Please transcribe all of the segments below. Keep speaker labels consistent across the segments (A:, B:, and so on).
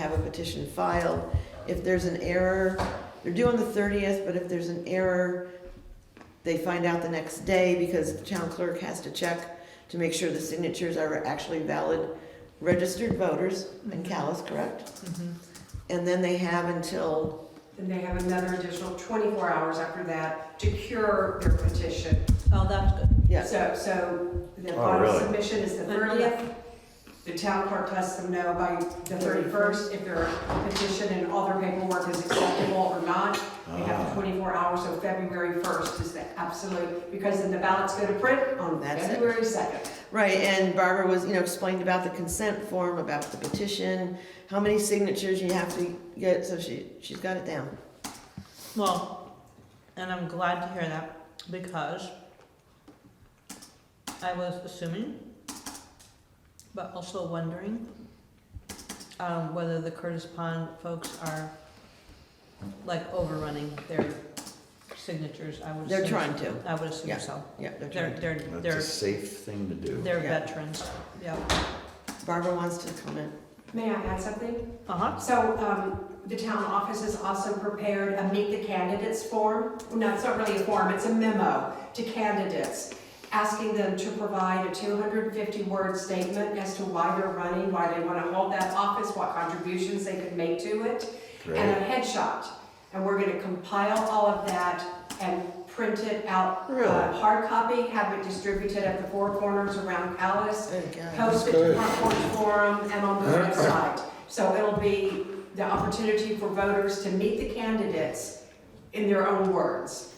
A: have a petition filed. If there's an error, they're due on the thirtieth, but if there's an error, they find out the next day because the town clerk has to check to make sure the signatures are actually valid registered voters
B: Mm-hmm.
A: in Callis, correct? And then they have until,
C: Then they have another additional 24 hours after that to cure their petition.
B: Oh, that's good.
A: yes,
C: So, so the
D: Oh,
C: final
D: really?
C: submission is the 30th. The town clerk lets them know by the 31st if their petition and all their paperwork is acceptable or not. They
D: Ah.
C: have 24 hours, so February 1st is the absolute, because then the ballots go to print on
A: That's it.
C: February 2nd.
A: right, and Barbara was, you know, explained about the consent form, about the petition, how many signatures you have to get, so she, she's got it down.
B: Well, and I'm glad to hear that because I was assuming, but also wondering, um, whether the Curtis Pond folks are like overrunning their signatures. I would.
A: They're
B: assume-
A: trying to,
B: I would assume so.
A: yeah, they're
B: They're,
A: trying to.
B: they're,
D: That's
B: they're,
D: a safe thing to do.
B: they're
A: Yeah.
B: veterans. Yeah.
A: Barbara wants to comment.
C: May I add something?
B: Uh huh.
C: So um, the town office has also prepared a meet the candidates form. No, it's not really a form, it's a memo to candidates, asking them to provide a 250-word statement as to why they're running, why they want to hold that office, what contributions they could make to it, and
D: Great.
C: a headshot. And we're going to compile all of that and print it out, uh,
A: Really?
C: hard copy, have it distributed at the four corners around Alice,
A: Oh, God.
C: posted to Front Porch Forum and on the website. So it'll be the opportunity for voters to meet the candidates in their own words,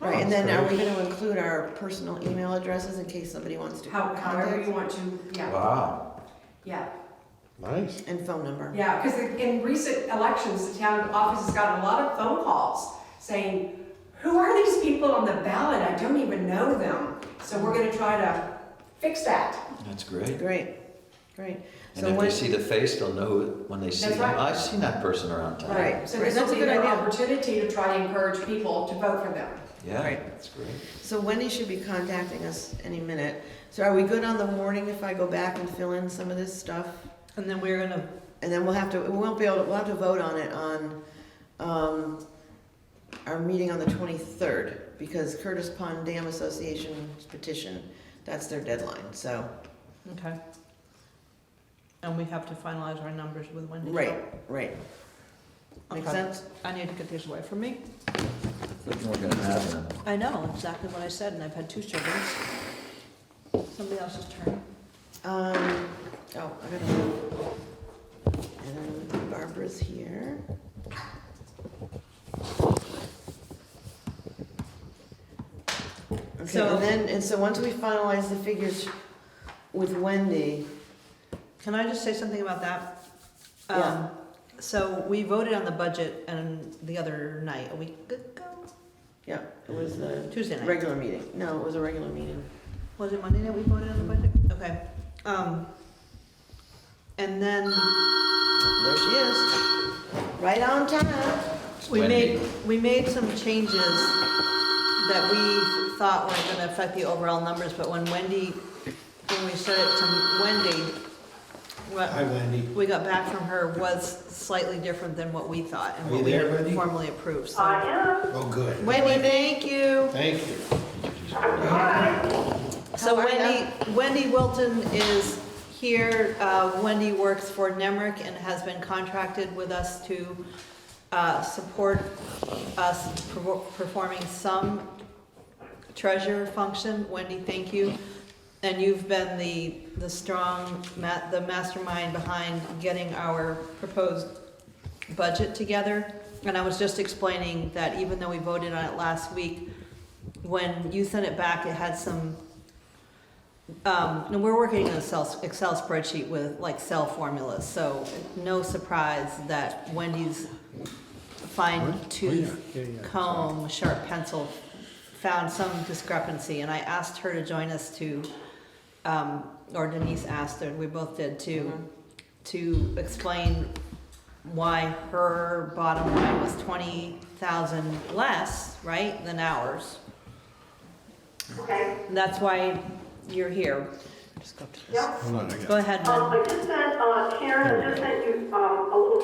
A: Right, and
D: Oh,
A: then are
D: that's
A: we gonna include our personal email addresses in case somebody wants to
C: how- however
A: contact?
C: you want to, yeah,
D: Wow,
C: yeah.
D: nice.
A: And phone number.
C: Yeah, because in recent elections, the town office has gotten a lot of phone calls saying, who are these people on the ballot? I don't even know them. So we're gonna try to fix that.
D: That's great.
A: Great, great.
D: And
A: So
D: if
A: when,
D: they see the face, they'll know it when they see
C: That's
D: them.
C: right.
D: I've seen that person around town.
A: Right.
C: So this
A: That's
C: will
A: a
C: be
A: good
C: their
A: idea.
C: opportunity to try to encourage people to vote for them.
D: Yeah,
A: Right.
D: that's great.
A: so Wendy should be contacting us any minute. So are we good on the warning if I go back and fill in some of this stuff?
B: And then we're gonna,
A: And then we'll have to, we won't be able, to- we'll have to vote on it on, um, our meeting on the twenty-third, because Curtis Pond Dam Association petition, that's their deadline, so,
B: okay. And we have to finalize our numbers with Wendy.
A: right, right. Make
B: Okay.
A: sense?
B: I need to get these away from me.
D: Thinking we're gonna have them.
B: I know exactly what I said, and I've had two children. Somebody else's turn.
A: Um, oh, I gotta move. And Barbara's here. Okay,
B: So-
A: and then, and so once we finalize the figures with Wendy,
B: Can I just say something about that? Um,
A: Yeah.
B: So we voted on the budget and the other night, a week ago,
A: yeah, it was a
B: Tuesday night.
A: regular meeting. No, it was a regular meeting.
B: Was it Monday night we voted on the budget? Okay. Um, and then
A: There she is, right on time.
B: we
D: Wendy.
B: made, we made some changes that we thought weren't gonna affect the overall numbers, but when Wendy, when we said it to Wendy, what,
E: Hi Wendy.
B: we got back from her was slightly different than what we thought and
E: Are
B: what
E: you
B: we
E: there,
B: had
E: Wendy?
B: formally approved, so.
E: Oh, good.
B: Wendy, thank you.
E: Thank you.
B: So
A: How are
B: Wendy, Wendy Wilton is here. Uh, Wendy works for Nemrick and has been contracted with us to uh, support us per- performing some treasurer function. Wendy, thank you. And you've been the, the strong, ma- the mastermind behind getting our proposed budget together. And I was just explaining that even though we voted on it last week, when you sent it back, it had some, um, and we're working in Excel, Excel spreadsheet with like cell formulas, so no surprise that Wendy's fine tooth
E: Oh, Yeah, yeah, yeah.
B: comb, sharp pencil, found some discrepancy, and I asked her to join us to, um, or Denise asked her, and we both did too, to explain why her bottom line was twenty thousand less, right, than ours.
C: Okay.
B: And That's why you're here. Just go up to this.
E: Yeah.
F: Hold on, I got.
B: Go ahead, Lynn.
F: Um, I just sent, uh, Karen, I just sent you, um, a little